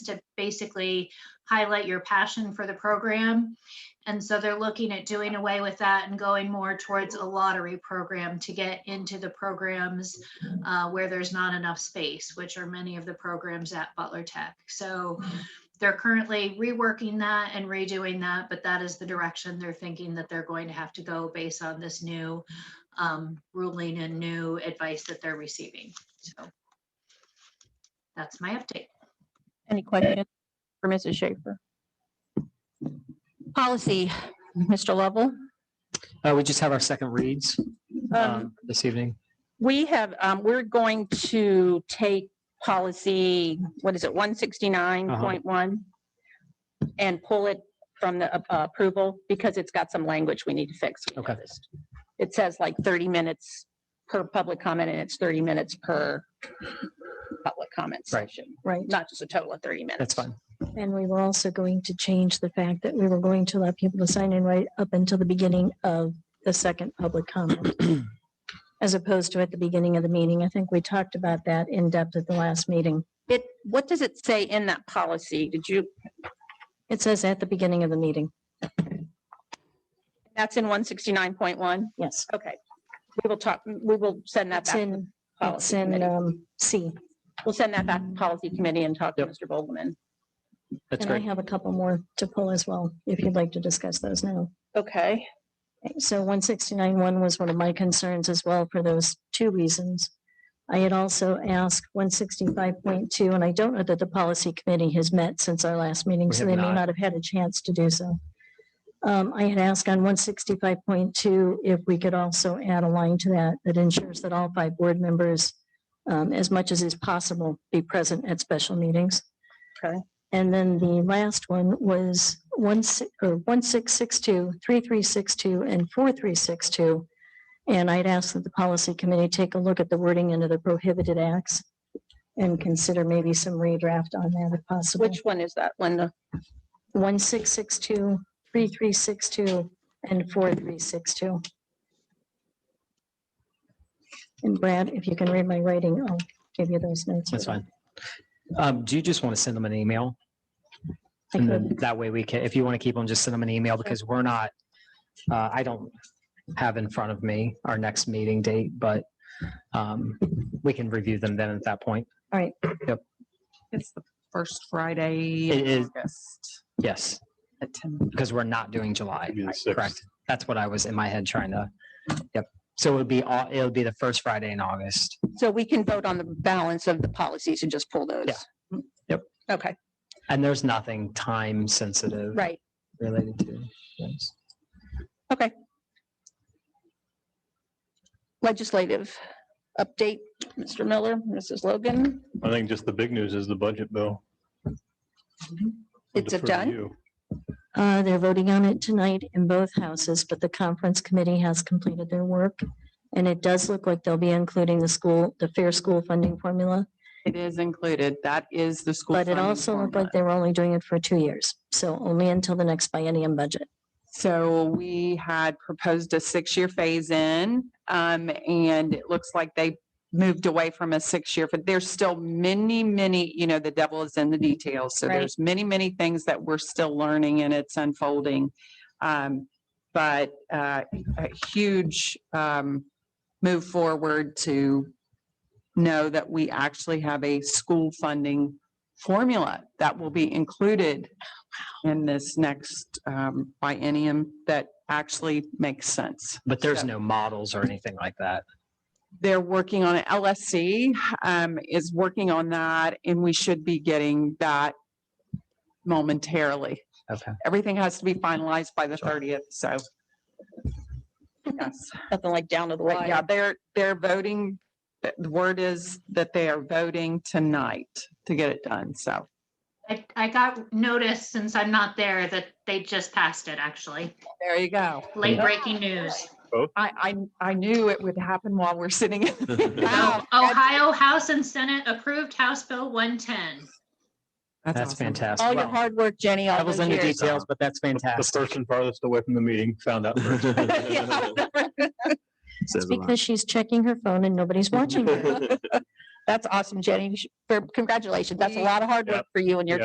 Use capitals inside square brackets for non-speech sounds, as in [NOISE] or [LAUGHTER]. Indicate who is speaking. Speaker 1: to basically highlight your passion for the program. And so they're looking at doing away with that and going more towards a lottery program to get into the programs uh, where there's not enough space, which are many of the programs at Butler Tech. So they're currently reworking that and redoing that, but that is the direction they're thinking that they're going to have to go based on this new um, ruling and new advice that they're receiving. So that's my update.
Speaker 2: Any questions for Mrs. Schaefer? Policy, Mr. Lovell.
Speaker 3: Uh, we just have our second reads, um, this evening.
Speaker 2: We have, um, we're going to take policy, what is it, one sixty-nine
Speaker 3: Uh-huh.
Speaker 2: point one? And pull it from the uh, approval because it's got some language we need to fix. we
Speaker 3: Okay.
Speaker 2: noticed. It says like thirty minutes per public comment and it's thirty minutes per public comment
Speaker 3: Right.
Speaker 2: session,
Speaker 4: Right,
Speaker 2: not just a total of thirty minutes.
Speaker 3: That's fine.
Speaker 4: and we were also going to change the fact that we were going to allow people to sign in right up until the beginning of the second public
Speaker 2: [CLEARS THROAT]
Speaker 4: comment. As opposed to at the beginning of the meeting. I think we talked about that in depth at the last meeting.
Speaker 2: It, what does it say in that policy? Did you,
Speaker 4: It says at the beginning of the meeting.
Speaker 2: that's in one sixty-nine point one?
Speaker 4: Yes.
Speaker 2: Okay, we will talk, we will send that
Speaker 4: It's
Speaker 2: back. to
Speaker 4: in, it's
Speaker 2: policy
Speaker 4: in,
Speaker 2: committee.
Speaker 4: um, C.
Speaker 2: We'll send that back to policy committee and talk to
Speaker 3: Yep.
Speaker 2: Mr. Vogelman.
Speaker 3: That's
Speaker 4: And I
Speaker 3: great.
Speaker 4: have a couple more to pull as well, if you'd like to discuss those now.
Speaker 2: Okay.
Speaker 4: So one sixty-nine one was one of my concerns as well for those two reasons. I had also asked one sixty-five point two, and I don't know that the policy committee has met since our last meeting,
Speaker 3: We
Speaker 4: so
Speaker 3: have
Speaker 4: they may
Speaker 3: not.
Speaker 4: not have had a chance to do so. Um, I had asked on one sixty-five point two if we could also add a line to that that ensures that all five board members, um, as much as is possible, be present at special meetings.
Speaker 2: Okay.
Speaker 4: And then the last one was one, si- or one, six, six, two, three, three, six, two, and four, three, six, two. And I'd ask that the policy committee take a look at the wording into the prohibited acts and consider maybe some redraft on that if possible.
Speaker 2: Which one is that, Linda?
Speaker 4: One, six, six, two, three, three, six, two, and four, three, six, two. And Brad, if you can read my writing, I'll give you those notes.
Speaker 3: That's fine. Um, do you just want to send them an email?
Speaker 4: I
Speaker 3: And
Speaker 4: could-
Speaker 3: then that way we can, if you want to keep them, just send them an email because we're not, uh, I don't have in front of me our next meeting date, but, um, we can review them then at that point.
Speaker 5: It's the first Friday.
Speaker 3: It
Speaker 5: in
Speaker 3: is.
Speaker 5: August
Speaker 3: Yes,
Speaker 5: at 10.
Speaker 3: because we're not doing July,
Speaker 6: Maybe the
Speaker 3: correct?
Speaker 6: sixth.
Speaker 3: That's what I was in my head trying to, yep. So it would be, all. it would be the first Friday in August.
Speaker 2: So we can vote on the balance of the policies and just pull those?
Speaker 3: Yeah. Yep.
Speaker 2: Okay,
Speaker 3: And there's nothing time sensitive
Speaker 2: right.
Speaker 3: related to this.
Speaker 2: Legislative update, Mr. Miller, Mrs. Logan.
Speaker 6: I think just the big news is the budget bill. I'll
Speaker 2: It's a
Speaker 6: defer to
Speaker 2: done?
Speaker 6: you.
Speaker 4: Uh, they're voting on it tonight in both houses, but the conference committee has completed their work. And it does look like they'll be including the school, the fair school funding formula,
Speaker 5: It is included. That is the school.
Speaker 4: but it
Speaker 5: funding
Speaker 4: also looked like
Speaker 5: formula.
Speaker 4: they were only doing it for two years. So only until the next biennium budget.
Speaker 5: So we had proposed a six-year phase-in, um, and it looks like they moved away from a six-year, but there's still many, many, you know, the devil is in the details. So
Speaker 2: Right.
Speaker 5: there's many, many things that we're still learning and it's unfolding. Um, but, uh, a huge, um, move forward to know that we actually have a school funding formula that will be included in this next um, biennium that actually makes sense.
Speaker 3: But there's
Speaker 5: So-
Speaker 3: no models or anything like that.
Speaker 5: They're working on it. LSC um, is working on that, and we should be getting that momentarily.
Speaker 3: Okay.
Speaker 5: Everything has to be finalized by the thirtieth, so. [LAUGHS] Yes,
Speaker 2: Nothing like down to the
Speaker 5: but
Speaker 2: wire.
Speaker 5: yeah, they're, they're voting. The the word is that they are voting tonight to get it done, so.
Speaker 1: I, I got notice since I'm not there that they just passed it, actually.
Speaker 5: There you go.
Speaker 1: Late breaking news.
Speaker 5: I, I, I knew it would happen while
Speaker 3: [LAUGHS]
Speaker 5: we're sitting. [LAUGHS] in-
Speaker 1: Oh,
Speaker 5: Wow.
Speaker 1: Ohio House and Senate approved House Bill 110.
Speaker 3: That's
Speaker 5: awesome.
Speaker 3: fantastic.
Speaker 2: All Oh, your
Speaker 3: Well,
Speaker 2: hard work, Jenny, all
Speaker 3: That was
Speaker 2: those
Speaker 3: in the
Speaker 2: years.
Speaker 3: details, but that's
Speaker 6: The
Speaker 3: fantastic.
Speaker 6: person farthest away from the meeting found out. first. [LAUGHS]
Speaker 5: [LAUGHS]
Speaker 2: Yeah,
Speaker 4: It's because she's checking her phone and nobody's watching her.
Speaker 2: That's awesome, Jenny. You should- for- Congratulations. That's a lot of hard work for you and your